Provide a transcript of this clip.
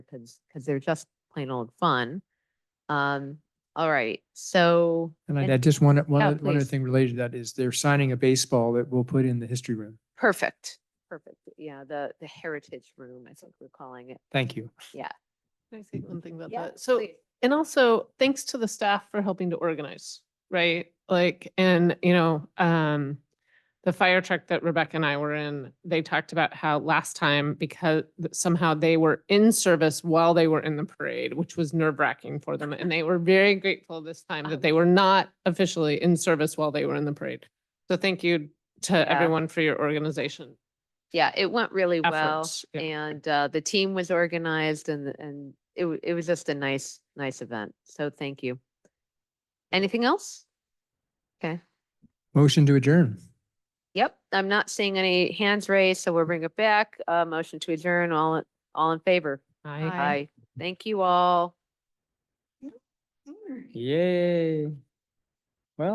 because, because they're just plain old fun. Um, all right, so. And I and- I just one, one, Yeah, other- one other please. thing related to that is they're signing a baseball that we'll put in the history room. Perfect, perfect. Yeah, the, the heritage room, I think we're calling it. Thank you. Can I say one thing about Yeah, that? So, please. and also thanks to the staff for helping to organize, right? Like, and you know, um, the fire truck that Rebecca and I were in, they talked about how last time because th- somehow they were in service while they were in the parade, which was nerve wracking for them. And they were very grateful this time that they were not officially in service while they were in the parade. So thank you to everyone for your organization. Yeah, it went really well Efforts, yeah. and, uh, the team was organized and, the- and it, wa- it was just a nice, nice event. So thank you. Anything else? Motion to adjourn. Yep, I'm not seeing any hands raised, so we'll bring it back. Uh, motion to adjourn, all, in- all in favor? Aye. Aye. Thank you all. Yay.